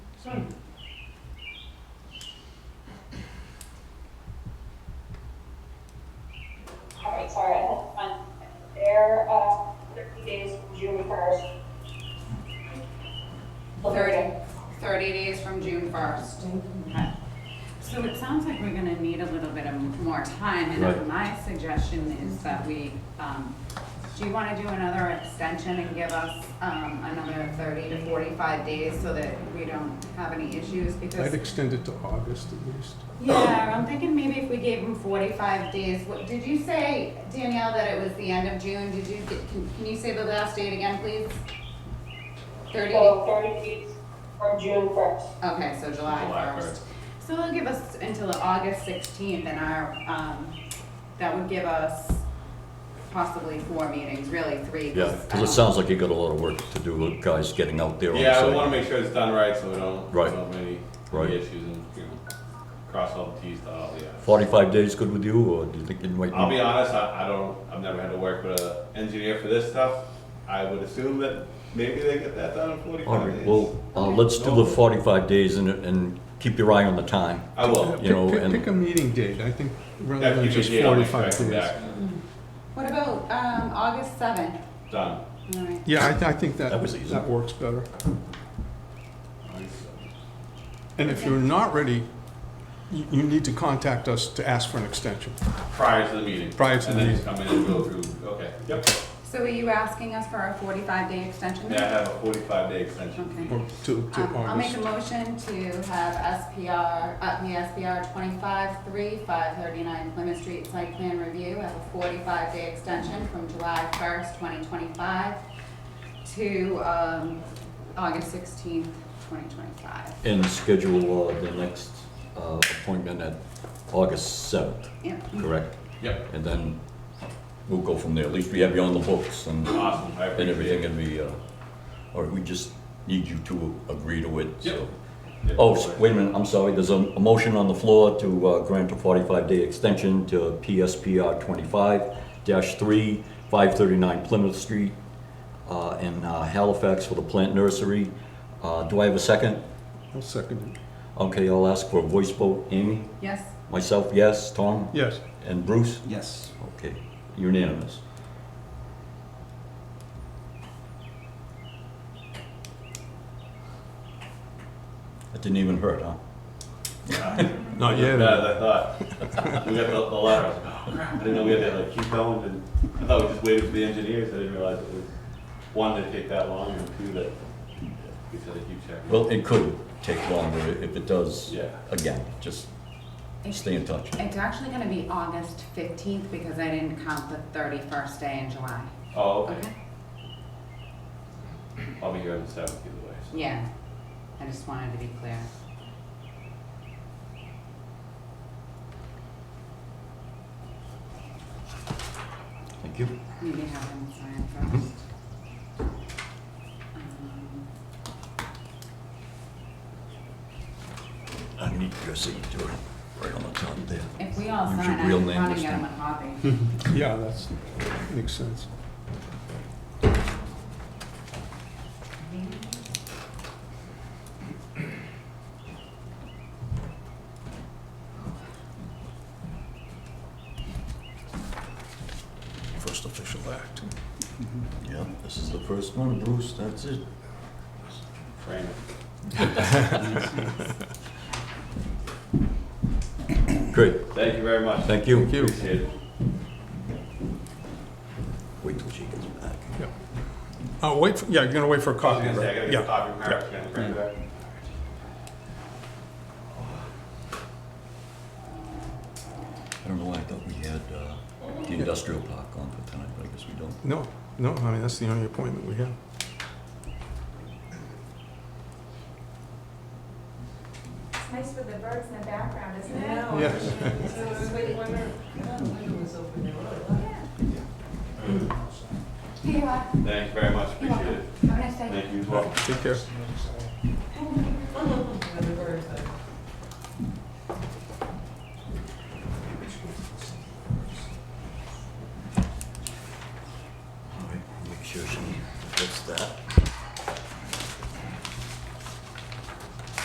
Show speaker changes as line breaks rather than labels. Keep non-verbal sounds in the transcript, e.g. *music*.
All right, sorry, I had fun. They're, uh, thirty days from June first.
Thirty, thirty days from June first. Okay. So it sounds like we're gonna need a little bit of more time,
Right.
and my suggestion is that we, um, do you wanna do another extension and give us, um, another thirty to forty-five days so that we don't have any issues?
I'd
Because,
extend it to August at least.
yeah, I'm thinking maybe if we gave them forty-five days, what, did you say, Danielle, that it was the end of June? Did you, can, can you say the last date again, please? Thirty?
So thirty days from June first.
Okay, so July
July
first. So it'll give us until August sixteenth and our, um, that would give us possibly four meetings, really three.
Yeah, because it
I
sounds like you got a lot of work to do with guys getting out there on the
Yeah, we
site.
wanna make sure it's done right, so we don't,
Right.
don't have any,
Right.
any issues and you know, cross all the Ts, dot all the Is.
Forty-five days good with you, or do you think you might?
I'll
need-
be honest, I, I don't, I've never had to work with an engineer for this stuff. I would assume that maybe they get that done in
All
forty-five
right,
days.
well, uh, let's do the forty-five days and, and keep your eye on the time.
I will.
You know,
Pick- pick-
and-
Pick a meeting date, I think, rather
That
than
gives you
just
a date, I'll make sure I
forty-five
come
days.
back.
What about, um, August seventh?
Done.
All right.
Yeah, I, th- I think that,
That was easy.
that works better. And if you're not ready, you, you need to contact us to ask for an extension.
Prior to the meeting.
Prior to the
And then just come in and go through, okay, yep.
So are you asking us for a forty-five day extension?
Yeah, I have a forty-five day extension.
Okay.
Or to, to
Um, I'll make a
August.
motion to have SPR, uh, the SPR twenty-five, three, five thirty-nine Plymouth Street Site Plan Review, have a forty-five day extension from July first, twenty twenty-five to, um, August sixteenth, twenty twenty-five.
And schedule uh, the next uh, appointment at August seventh,
Yep.
correct?
Yep,
And then we'll go from there. At least we have you on the books and, and
awesome, I
everything,
appreciate it.
and we, uh, or we just need you to agree to it, so.
Yep. Yep.
Oh, s- wait a minute, I'm sorry, there's a, a motion on the floor to uh, grant a forty-five day extension to PSPR twenty-five three, five thirty-nine Plymouth Street, uh, in uh, Halifax for the plant nursery. Uh, do I have a second?
I'll second it.
Okay, I'll ask for a voice vote, Amy,
Yes,
myself, yes, Tom,
Yes,
and Bruce?
Yes.
Okay, unanimous. That didn't even hurt, huh? Oh,
not
Yeah,
yet.
I thought. We got the, the letter, I was like, oh crap, I didn't know we had to like keep going and I thought we just waited for the engineers, I didn't realize it was, one, that take that long and two, that we said to keep checking.
Well, it could take longer if it does.
Yeah.
Again, just stay in touch.
it's actually gonna be August fifteenth because I didn't count the thirty-first day in July.
Oh, okay, I'll be here on the seventh either way, so.
Yeah, I just wanted to be clear.
Thank you.
Maybe have him sign first. Um,
I need your signature right on the top there.
If we all
Use your
sign,
real
I'm
name
running
this
get him
time.
a copy.
Yeah, that's, makes sense.
First official act. Yeah, this is the first one, Bruce, that's *laughs* it.
Frame it.
Great,
Thank you very much.
thank you. Thank
Appreciate it.
Wait till she gets back.
Uh, wait, for- yeah, you're gonna wait for a
I was
copy,
gonna say, I gotta
right?
get a
Yeah,
copy from Eric, and bring it back.
I don't know why I thought we had uh, the industrial park on for tonight, but I guess we don't.
no, no, I mean, that's the only appointment we have.
It's nice with the birds in the background, isn't it?
Oh,
Yeah. *laughs*
Here you are.
Thank you very much,
You're welcome.
appreciate it.
Have a nice day.
Thank you as well.
Take care.